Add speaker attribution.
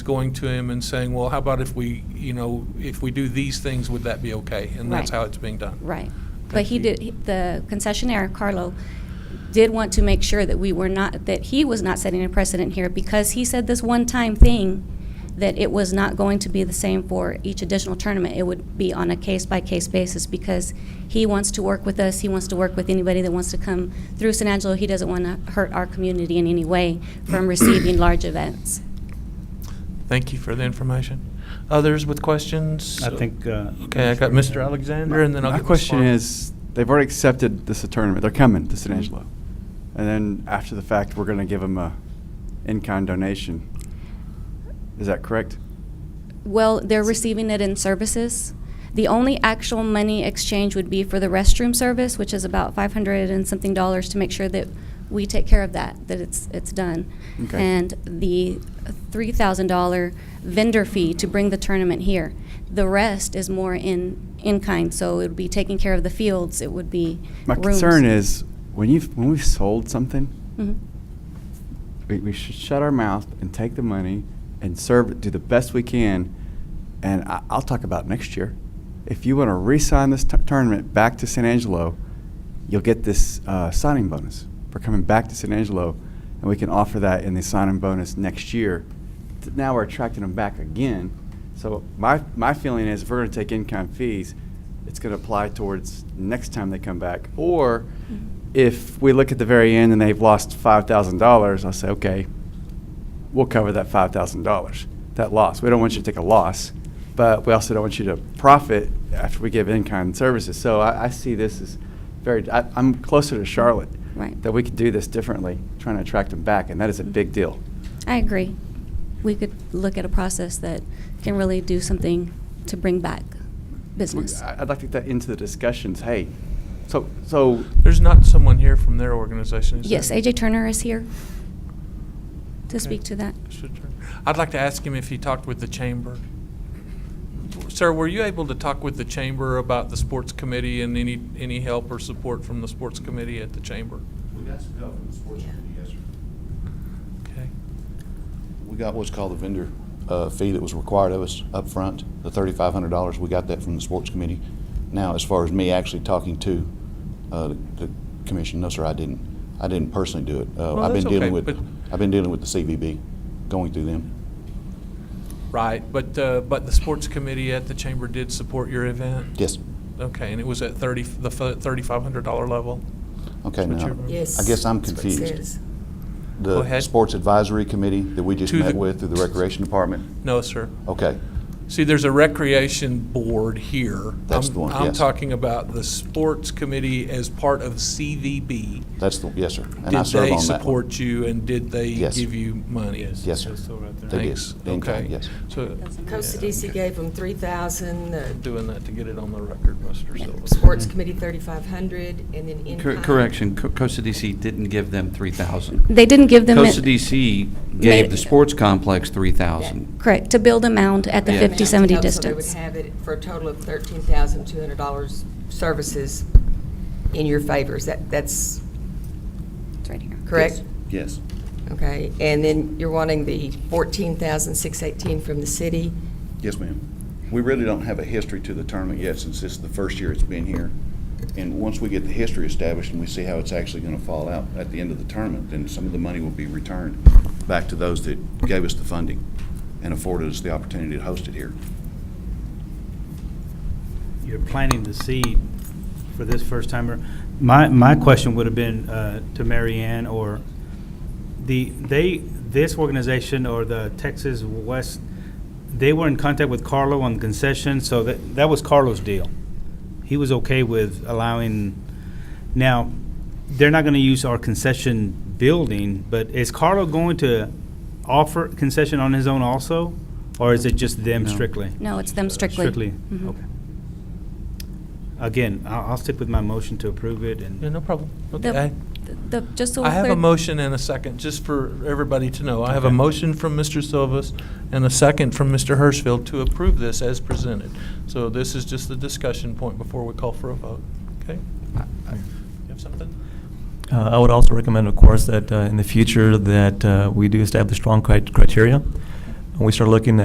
Speaker 1: going to him and saying, well, how about if we, you know, if we do these things, would that be okay? And that's
Speaker 2: Right.
Speaker 1: how it's being done.
Speaker 2: Right. But
Speaker 1: Thank
Speaker 2: he
Speaker 1: you.
Speaker 2: did, he- the concessionaire, Carlo, did want to make sure that we were not, that he was not setting a precedent here because he said this one-time thing that it was not going to be the same for each additional tournament. It would be on a case-by-case basis because he wants to work with us, he wants to work with anybody that wants to come through San Angelo. He doesn't want to hurt our community in any way from receiving large events.
Speaker 1: Thank you for the information. Others with questions?
Speaker 3: I think. uh,
Speaker 1: Okay, I got Mr. Alexander, and then I'll
Speaker 4: My
Speaker 1: get Ms.
Speaker 4: question
Speaker 1: Farmer.
Speaker 4: is, they've already accepted this tournament. They're coming to San Angelo. And then after the fact, we're going to give them a in-kind donation. Is that correct?
Speaker 2: Well, they're receiving it in services. The only actual money exchange would be for the restroom service, which is about five hundred and something dollars to make sure that we take care of that, that it's, it's done.
Speaker 4: Okay.
Speaker 2: And the three thousand dollar vendor fee to bring the tournament here. The rest is more in, in kind, so it would be taking care of the fields, it would be
Speaker 4: My
Speaker 2: rooms.
Speaker 4: concern is, when you've, when we've sold something,
Speaker 2: Mhm.
Speaker 4: we, we should shut our mouth and take the money and serve, do the best we can. And I, I'll talk about next year. If you want to re-sign this t- tournament back to San Angelo, you'll get this uh, signing bonus for coming back to San Angelo, and we can offer that in the signing bonus next year. Th- Now we're attracting them back again. So my, my feeling is if we're going to take in-kind fees, it's going to apply towards next time they come back. Or if we look at the very end and they've lost $5,000, I'll say, okay, we'll cover that $5,000, that loss. We don't want you to take a loss, but we also don't want you to profit after we give in-kind services. So I, I see this as very, I, I'm closer to Charlotte.
Speaker 2: Right.
Speaker 4: That we could do this differently, trying to attract them back, and that is a big deal.
Speaker 2: I agree. We could look at a process that can really do something to bring back business.
Speaker 4: I- I'd like to get that into the discussions, hey, so, so
Speaker 1: There's not someone here from their organization, is there?
Speaker 2: Yes, AJ Turner is here
Speaker 1: Okay.
Speaker 2: to speak to that.
Speaker 1: Mr. Turner. I'd like to ask him if he talked with the chamber. Sir, were you able to talk with the chamber about the sports committee and any, any help or support from the sports committee at the chamber?
Speaker 5: We got some help from the sports committee, yes, sir.
Speaker 1: Okay.
Speaker 5: We got what's called the vendor uh, fee that was required of us up front, the thirty-five hundred dollars. We got that from the sports committee. Now, as far as me actually talking to uh, the the commission, no, sir, I didn't. I didn't personally do it. Uh,
Speaker 1: Well,
Speaker 5: I've been
Speaker 1: that's okay,
Speaker 5: dealing with,
Speaker 1: but-
Speaker 5: I've been dealing with the CVB, going through them.
Speaker 1: Right, but, uh, but the sports committee at the chamber did support your event?
Speaker 5: Yes.
Speaker 1: Okay, and it was at thirty, the thirty-five hundred dollar level?
Speaker 5: Okay,
Speaker 1: That's what
Speaker 5: now,
Speaker 1: you-
Speaker 6: Yes.
Speaker 5: I guess I'm
Speaker 6: that's what it
Speaker 5: confused.
Speaker 6: says.
Speaker 1: Go
Speaker 5: the
Speaker 1: ahead.
Speaker 5: sports advisory committee that we just
Speaker 1: To
Speaker 5: met
Speaker 1: the-
Speaker 5: with through the recreation department.
Speaker 1: No, sir.
Speaker 5: Okay,
Speaker 1: See, there's a recreation board here.
Speaker 5: That's
Speaker 1: I'm-
Speaker 5: the one,
Speaker 1: I'm
Speaker 5: yes.
Speaker 1: talking about the sports committee as part of CVB.
Speaker 5: that's the, yes, sir. And I
Speaker 1: Did
Speaker 5: serve
Speaker 1: they
Speaker 5: on that one.
Speaker 1: support you and did they
Speaker 5: Yes.
Speaker 1: give you money? Yes.
Speaker 5: Yes, sir. They did.
Speaker 1: Thanks.
Speaker 5: In kind,
Speaker 1: Okay.
Speaker 5: yes.
Speaker 1: So,
Speaker 6: Costa DC gave them 3,000, uh,
Speaker 1: doing that to get it on the record, Mr. Silva.
Speaker 6: Sports Committee 3,500, and then in
Speaker 7: Mm-hmm. Cor-
Speaker 6: kind-
Speaker 7: Correction, Co- Costa DC didn't give them 3,000.
Speaker 2: They didn't give them. it-
Speaker 7: Costa DC
Speaker 2: Made-
Speaker 7: gave the sports complex 3,000.
Speaker 2: Correct, to build a mound at the
Speaker 7: Yeah.
Speaker 6: amount,
Speaker 2: 50-70
Speaker 6: so They would
Speaker 2: distance.
Speaker 6: have it for a total of $13,200 services in your favors. That, that's
Speaker 2: It's right here.
Speaker 6: correct?
Speaker 7: Yes.
Speaker 6: Okay, and then you're wanting the 14,618 from the city?
Speaker 5: Yes, ma'am. We really don't have a history to the tournament yet since this is the first year it's been here. And once we get the history established and we see how it's actually going to fall out at the end of the tournament, then some of the money will be returned back to those that gave us the funding and afforded us the opportunity to host it here.
Speaker 3: You're planting the seed for this first timer. My, my question would have been uh, to Mary Ann or the, they, this organization or the Texas West, they were in contact with Carlo on concession, so that, that was Carlo's deal. He was okay with allowing, now, they're not gonna use our concession building, but is Carlo going to offer concession on his own also? Or is it just them
Speaker 7: No.
Speaker 3: strictly?
Speaker 2: No, it's
Speaker 1: Uh,
Speaker 2: them strictly.
Speaker 3: Strictly,
Speaker 2: Mhm.
Speaker 3: okay. Again, I'll, I'll stick with my motion to approve it
Speaker 1: Yeah,
Speaker 3: and,
Speaker 1: no problem.
Speaker 2: The,
Speaker 1: Okay.
Speaker 2: the, just so
Speaker 1: I
Speaker 2: we're
Speaker 1: have a
Speaker 2: clear-
Speaker 1: motion and a second, just for everybody to know. I have a
Speaker 3: Okay.
Speaker 1: motion from Mr. Silvas and a second from Mr. Hirschfield to approve this as presented. So this is just the discussion point before we call for a vote. Okay? You have something?
Speaker 8: Uh, I would also recommend, of course, that uh, in the future, that uh, we do establish strong cri- criteria and we start looking